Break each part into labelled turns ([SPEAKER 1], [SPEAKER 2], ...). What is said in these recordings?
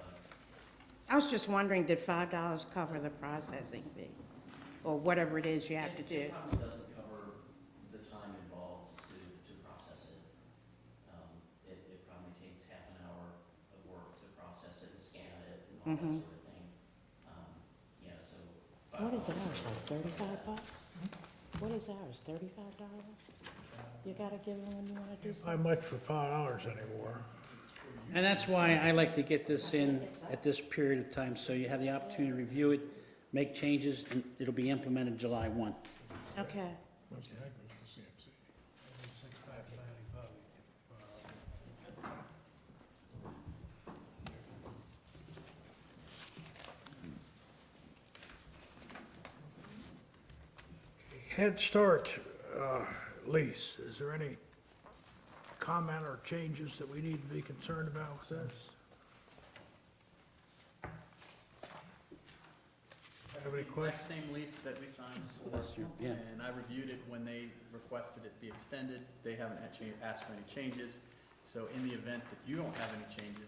[SPEAKER 1] Um,
[SPEAKER 2] was just wondering, did five dollars cover the processing fee? Or whatever it is you have to
[SPEAKER 1] It-
[SPEAKER 2] do?
[SPEAKER 1] It probably doesn't cover the time involved to, to process it. Um, It, it probably takes half an hour of work to process it and scan it and all that
[SPEAKER 2] Mhm.
[SPEAKER 1] sort of thing. Um, Yeah, so.
[SPEAKER 2] What is ours, like thirty-five bucks? What is ours, thirty-five dollars? You gotta give them when you wanna do
[SPEAKER 3] Not
[SPEAKER 2] something.
[SPEAKER 3] much for five dollars anymore.
[SPEAKER 4] And that's why I like to get this in at this period of time, so you have the opportunity to review it, make changes, and it'll be implemented July 1.
[SPEAKER 2] Okay,
[SPEAKER 3] Head Start uh, lease, is there any comment or changes that we need to be concerned about with this? Have any
[SPEAKER 5] Exact
[SPEAKER 3] questions?
[SPEAKER 5] same lease that we signed
[SPEAKER 4] Last year,
[SPEAKER 5] for,
[SPEAKER 4] yeah.
[SPEAKER 5] and I reviewed it when they requested it be extended. They haven't had cha- asked for any changes. So in the event that you don't have any changes,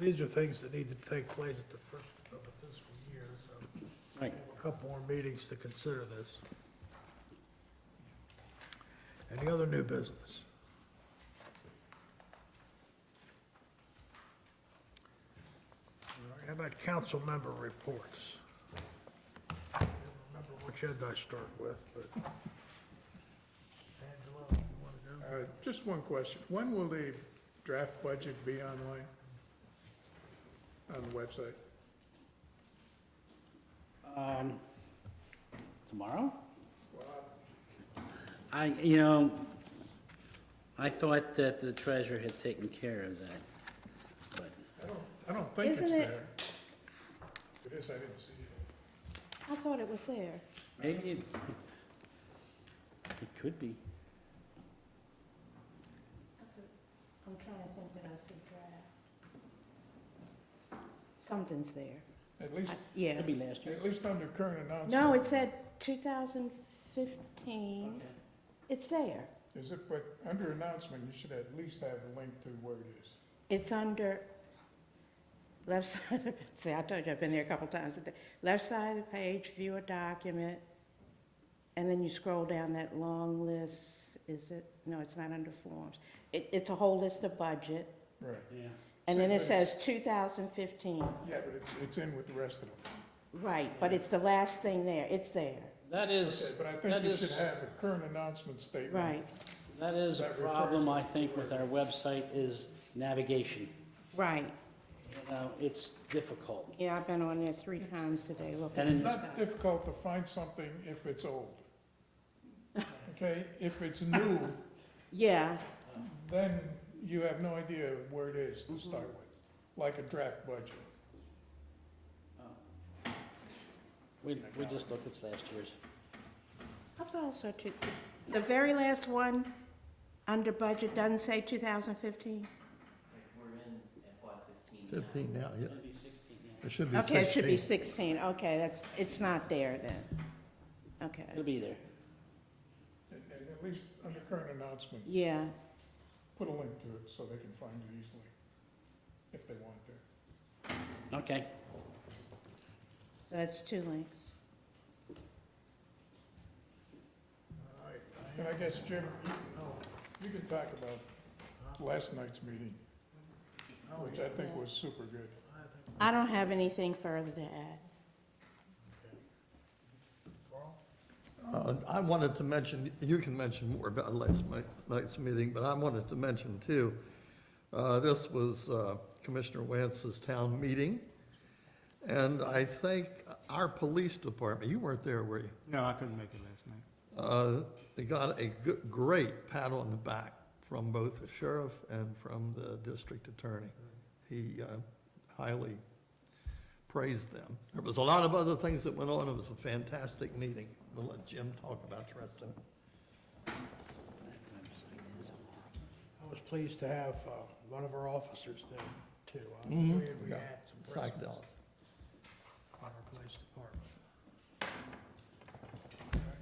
[SPEAKER 3] These are things that need to take place at the first of the fiscal year, so
[SPEAKER 4] Right.
[SPEAKER 3] a couple more meetings to consider this. Any other new business? All right, How about council member reports? I don't remember which end I start with, but. Angelo, you want
[SPEAKER 6] Uh, Just one question. When will the draft budget be online? On the website?
[SPEAKER 4] Um, Tomorrow? I, you know, I thought that the treasurer had taken care of that, but
[SPEAKER 6] I don't think it's
[SPEAKER 2] Isn't it-
[SPEAKER 6] there. It is, I didn't see it.
[SPEAKER 2] I thought it was there.
[SPEAKER 4] maybe it, it could be.
[SPEAKER 2] I'm trying to think that I see draft. Something's there.
[SPEAKER 6] At least,
[SPEAKER 2] I- Yeah.
[SPEAKER 4] Could be last year.
[SPEAKER 6] at least under current
[SPEAKER 2] No,
[SPEAKER 6] announcement.
[SPEAKER 2] it said two thousand fifteen. It's there.
[SPEAKER 6] Is it, but under announcement, you should at least have a link to where it is.
[SPEAKER 2] It's under left side of, see, I told you, I've been there a couple times a day. Left side of the page, view a document, and then you scroll down that long list, is it, no, it's not under forms. It, it's a whole list of budget,
[SPEAKER 6] Right.
[SPEAKER 4] Yeah.
[SPEAKER 2] and then it
[SPEAKER 6] Same
[SPEAKER 2] says two thousand fifteen.
[SPEAKER 6] Yeah, but it's, it's in with the rest of them.
[SPEAKER 2] Right, but it's the last thing there, it's there,
[SPEAKER 4] That is,
[SPEAKER 6] Okay, but I
[SPEAKER 4] that
[SPEAKER 6] think you should
[SPEAKER 4] is-
[SPEAKER 6] have a current announcement statement.
[SPEAKER 2] right,
[SPEAKER 4] that is a
[SPEAKER 6] That refers
[SPEAKER 4] problem,
[SPEAKER 6] to-
[SPEAKER 4] I think, with our website is navigation.
[SPEAKER 2] right.
[SPEAKER 4] You know, it's difficult.
[SPEAKER 2] Yeah, I've been on there three times today looking.
[SPEAKER 4] And in-
[SPEAKER 6] It's
[SPEAKER 2] for
[SPEAKER 6] not
[SPEAKER 2] stuff.
[SPEAKER 6] difficult to find something if it's old. Okay, if it's new,
[SPEAKER 2] Yeah,
[SPEAKER 6] then you have no idea where it is to start with, like a draft budget.
[SPEAKER 4] We, we just looked at last year's.
[SPEAKER 2] I thought I saw two, the very last one, under budget, doesn't say two thousand fifteen?
[SPEAKER 1] Like, we're in FY fifteen now.
[SPEAKER 7] 15 now, yeah.
[SPEAKER 4] It'll be 16 now.
[SPEAKER 7] It should be 16.
[SPEAKER 2] Okay, it should be 16, okay, that's, it's not there then. Okay,
[SPEAKER 4] It'll be there.
[SPEAKER 6] And and at least under current announcement,
[SPEAKER 2] yeah,
[SPEAKER 6] put a link to it so they can find it easily, if they want to.
[SPEAKER 4] Okay.
[SPEAKER 2] so that's two links.
[SPEAKER 3] to?
[SPEAKER 6] And I guess, Jim, you can talk about last night's meeting, which I think was super good.
[SPEAKER 2] I don't have anything further to add.
[SPEAKER 7] Uh, I wanted to mention, you can mention more about last mi- night's meeting, but I wanted to mention too, uh, this was uh, Commissioner Wance's town meeting, and I think our police department, you weren't there, were you?
[SPEAKER 8] No, I couldn't make it last night.
[SPEAKER 7] Uh, They got a goo- great pat on the back from both the sheriff and from the district attorney. He uh, highly praised them. There was a lot of other things that went on. It was a fantastic meeting. We'll let Jim talk about the rest of it.
[SPEAKER 3] I was pleased to have uh, one of our officers there, too. I was
[SPEAKER 7] Mhm.
[SPEAKER 3] glad we
[SPEAKER 7] Yeah.
[SPEAKER 3] had some presence
[SPEAKER 7] Psychedelics.
[SPEAKER 3] on our police